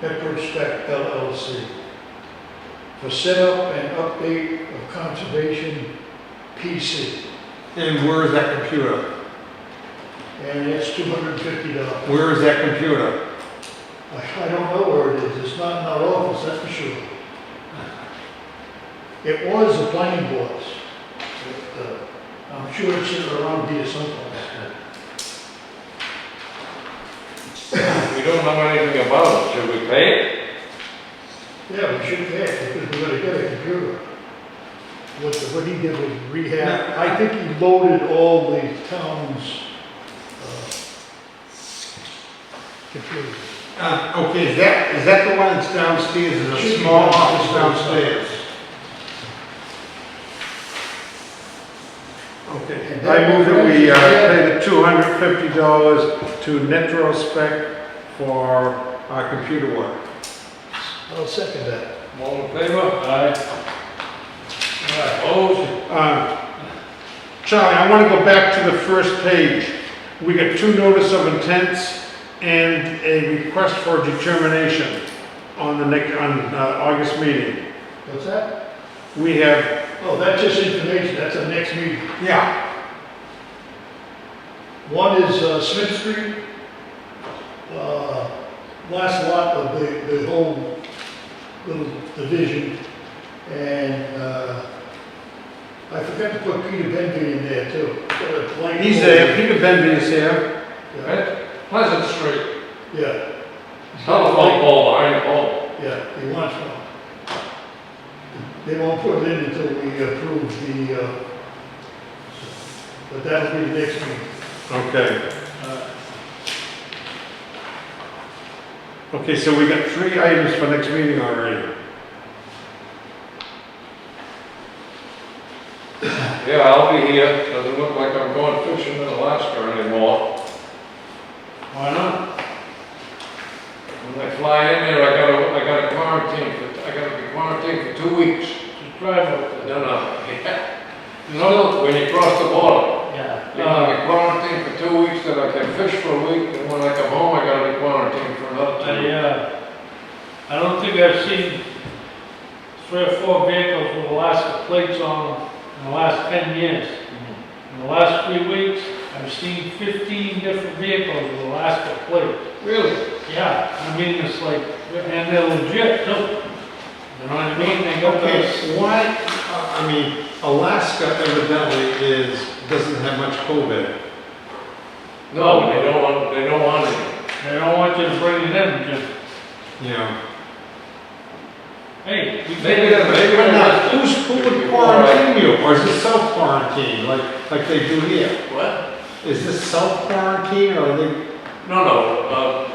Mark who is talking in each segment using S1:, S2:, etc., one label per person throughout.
S1: Pepperidge Spec LLC for setup and update of conservation PC,
S2: And where is that computer?
S1: and it's two hundred and fifty dollars.
S2: Where is that computer?
S1: I I don't know where it is, it's not in our office, that's for sure. It was the planning board's, but, uh, I'm sure it's around here someplace.
S3: We don't know anything about it, should we pay it?
S1: Yeah, we should have, because we're gonna get a computer. What, the- what he did was rehab, I think he loaded all the town's, uh, computers.
S2: Uh, okay, is that, is that the one that's downstairs, is a small office downstairs? Okay, I move that we, uh, pay the two hundred fifty dollars to Netrospec for our computer work.
S1: I'll second that.
S3: All in favor? Aye. Opposed?
S2: Uh, Charlie, I want to go back to the first page. We got two notice of intents and a request for determination on the next, on uh, August meeting.
S1: What's that?
S2: We have,
S1: Oh, that's just information, that's our next meeting.
S2: yeah,
S1: One is uh, Smith Street, uh, last lot of the, the whole little division. And uh, I forgot to put Peter Benvey in there too. Got a blank
S2: he's there, Peter Benvey is here.
S1: Yeah,
S3: Right? Pleasant Street,
S1: Yeah.
S3: telephone pole behind the pole.
S1: Yeah, he wants one. They won't put it in until we approve the, uh, but that'll be the next meeting.
S2: Okay. Okay, so we got three items for next meeting already.
S3: Yeah, I'll be here, doesn't look like I'm going fishing in Alaska anymore.
S2: Why not?
S3: When I fly in there, I gotta, I gotta quarantine, for- I gotta be quarantined for two weeks.
S4: Just drive up there.
S3: No, no, yeah. No, when you cross the border,
S4: Yeah.
S3: you gotta be quarantined for two weeks, then I can fish for a week, and when I come home, I gotta be quarantined for another two
S4: I,
S3: weeks.
S4: uh, I don't think I've seen three or four vehicles with Alaska plates on them in the last ten years. In the last three weeks, I've seen fifteen different vehicles with Alaska plates.
S3: Really?
S4: Yeah, I mean, it's like, and they're legit too. You know what I mean? They got
S2: Okay,
S4: those.
S2: so why, I I mean, Alaska evidently is, doesn't have much COVID.
S3: No, they don't want, they don't want it.
S4: They don't want you to bring it in, just,
S2: Yeah.
S4: hey.
S3: Maybe
S4: we can't-
S3: they're- maybe they're not-
S2: Who's, who would quarantine you, or is it self-quarantine, like, like they do here?
S3: What?
S2: Is this self-quarantine, or are they,
S3: No, no, uh,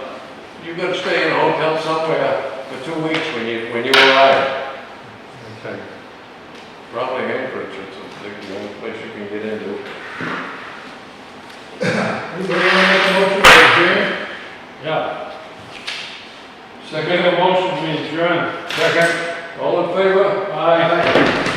S3: you gotta stay in a hotel somewhere for two weeks when you, when you arrive.
S2: okay.
S3: Probably Anchorage or something, the only place you can get into.
S1: Anybody want to make a motion for adjournment?
S4: Yeah. Second motion, we adjourn.
S3: Second. All in favor?
S4: Aye.